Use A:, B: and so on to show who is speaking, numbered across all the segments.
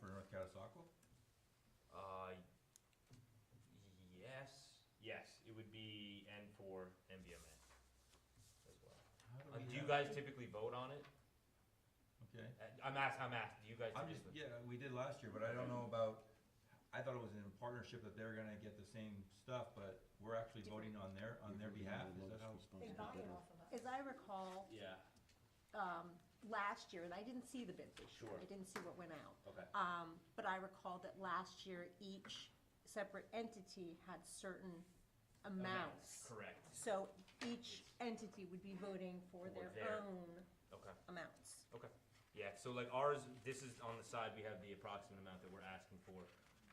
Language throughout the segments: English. A: Aqua?
B: Uh, yes, yes, it would be N for MBMA as well. Uh, do you guys typically vote on it?
A: Okay,
B: Uh, I'm asking, I'm asking, do you guys?
A: I'm just,
B: typically-
A: yeah, we did last year, but I don't know about, I thought it was in partnership that they're gonna get the same stuff, but we're actually voting on their, on their behalf, is that how?
C: They buy it off of us.
D: As I recall,
B: Yeah,
D: um, last year, and I didn't see the bid this year.
B: Sure.
D: I didn't see what went out.
B: okay,
D: Um, But I recall that last year, each separate entity had certain amounts.
B: correct,
D: So each entity would be voting for
B: For
D: their
B: their-
D: own
B: okay.
D: amounts.
B: Okay, yeah, so like ours, this is on the side, we have the approximate amount that we're asking for.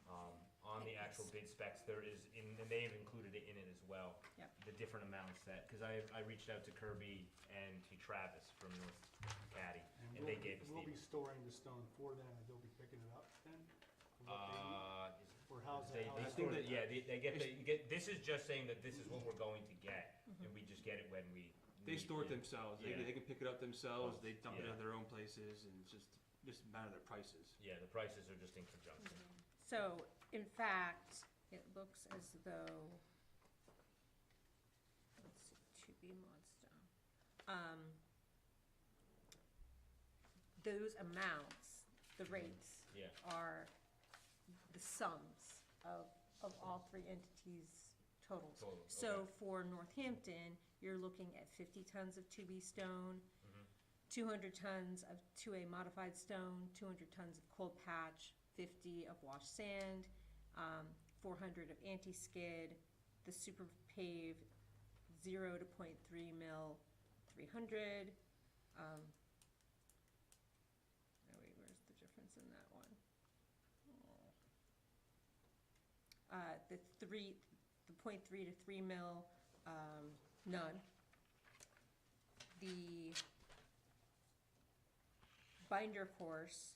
B: Um, on the actual bid specs, there is, in- and they've included it in it as well.
D: Yep.
B: The different amounts that, cause I, I reached out to Kirby and to Travis from North Caddy, and they
E: we'll-
B: gave us
E: We'll be
B: the.
E: storing the stone for them, and they'll be picking it up then? from what they need?
B: Uh, is-
E: Or how's that?
B: they,
E: how's
B: they
E: that
B: sort of,
E: work?
B: yeah, they, they get, they get, this is just saying that this is what we're going to get, and we just get it when we.
F: They
B: need
F: store it themselves. They,
B: Yeah.
F: they can pick it up themselves. They dump it
B: Yeah.
F: at their own places, and it's just just a matter of their prices.
B: Yeah, the prices are just in conjunction.
D: So in fact, it looks as though, let's see, to be Monster. Um, those amounts, the rates
B: Yeah.
D: are the sums of, of all three entities' totals.
B: Total,
D: So
B: okay.
D: for Northampton, you're looking at fifty tons of two B stone,
B: Mhm.
D: two hundred tons of two A modified stone, two hundred tons of cold patch, fifty of washed sand, um, four hundred of anti-skid, the super pave, zero to point three mil, three hundred. Um, oh wait, where's the difference in that one? Uh, the three, the point three to three mil, um, none. The binder course,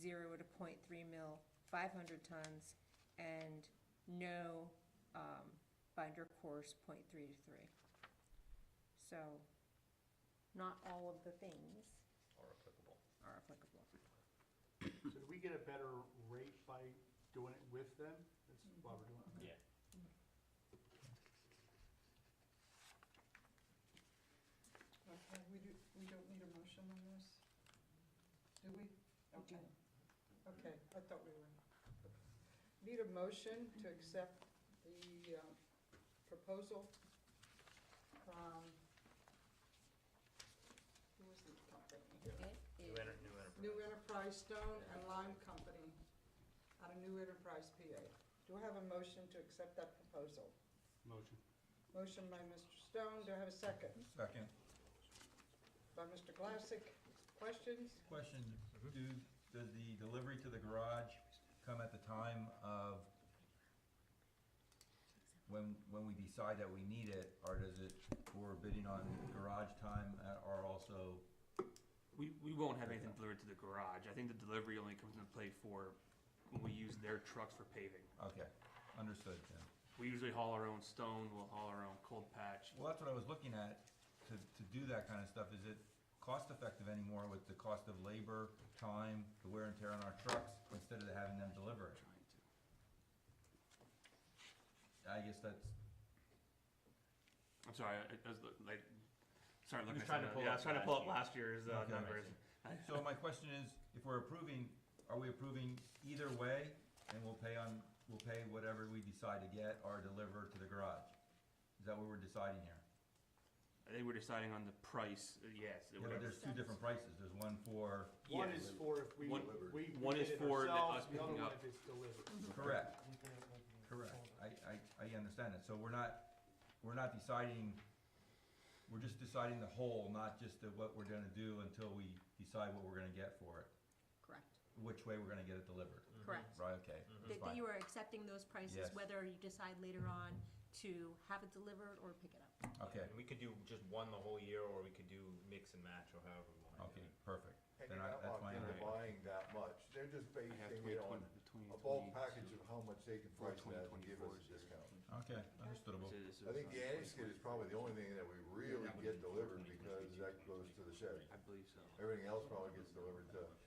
D: zero to point three mil, five hundred tons, and no, um, binder course, point three to three. So, not all of the things
B: Are applicable.
D: are applicable.
E: So do we get a better rate by doing it with them? That's why we're doing it.
B: Yeah.
G: Okay, we do, we don't need a motion on this? Do we? Okay. Okay, I thought we were. Need a motion to accept the uh, proposal from, who was the company?
D: It
B: New
D: is
B: enter, new enterprise.
G: New Enterprise Stone and Lime Company out of New Enterprise, PA. Do I have a motion to accept that proposal?
E: Motion.
G: Motion by Mr. Stone, do I have a second?
A: Second,
G: By Mr. Glassick, questions?
A: question,
B: Mm-hmm.
A: do, does the delivery to the garage come at the time of when, when we decide that we need it, or does it, we're bidding on garage time, uh, or also?
F: We, we won't have anything delivered to the garage. I think the delivery only comes into play for when we use their trucks for paving.
A: Okay, understood then.
F: We usually haul our own stone. We'll haul our own cold patch.
A: Well, that's what I was looking at, to, to do that kind of stuff, is it cost-effective anymore with the cost of labor, time, the wear and tear on our trucks, instead of having them deliver it?
F: Trying to.
A: I guess that's,
F: I'm sorry. I, I was lo- like, sorry. Looking
B: was
F: at
B: trying to
F: something.
B: pull
F: yeah, I
B: up
F: was trying to pull up
B: last
F: last year's uh,
A: Okay.
F: numbers.
A: so my question is, if we're approving, are we approving either way, and we'll pay on, we'll pay whatever we decide to get or deliver to the garage? Is that what we're deciding here?
F: I think we're deciding on the price. uh, Yes.
A: Yeah, but
F: whatever.
A: there's two different prices, there's one for,
E: One
F: Yeah.
E: is for if we,
F: One-
E: we we
F: one
E: did
F: is
E: it
F: for the- us
E: ourselves, the other
F: picking
E: one
F: up. Mm-hmm.
E: if it's delivered.
A: correct, Correct, I, I, I understand it, so we're not, we're not deciding, we're just deciding the whole, not just the, what we're gonna do until we decide what we're gonna get for it,
D: correct,
A: which way we're gonna get it delivered,
D: correct.
A: Mm-hmm. right, okay, that's
D: That, that you
A: fine,
D: are accepting those prices,
A: Yes.
D: whether you decide later on to have it delivered or pick it up.
A: okay,
B: And we could do just one the whole year, or we could do mix and match, or however we want to do
A: okay,
B: it.
A: perfect.
H: And
A: Then I-
H: you're not
A: that's
H: locked
A: my
H: into
A: understanding.
H: buying that much, they're just basing
F: have
H: it on
F: 20,
H: a
F: 20,
H: bulk package of how much they can price that and give us a
F: 20, 24,
H: discount.
A: Okay,
F: So
A: understandable,
F: this is,
H: I think the
F: uh,
H: anti-skid is probably the only thing that we really get delivered because that goes to the shed.
F: I believe so.
H: Everything else probably gets delivered to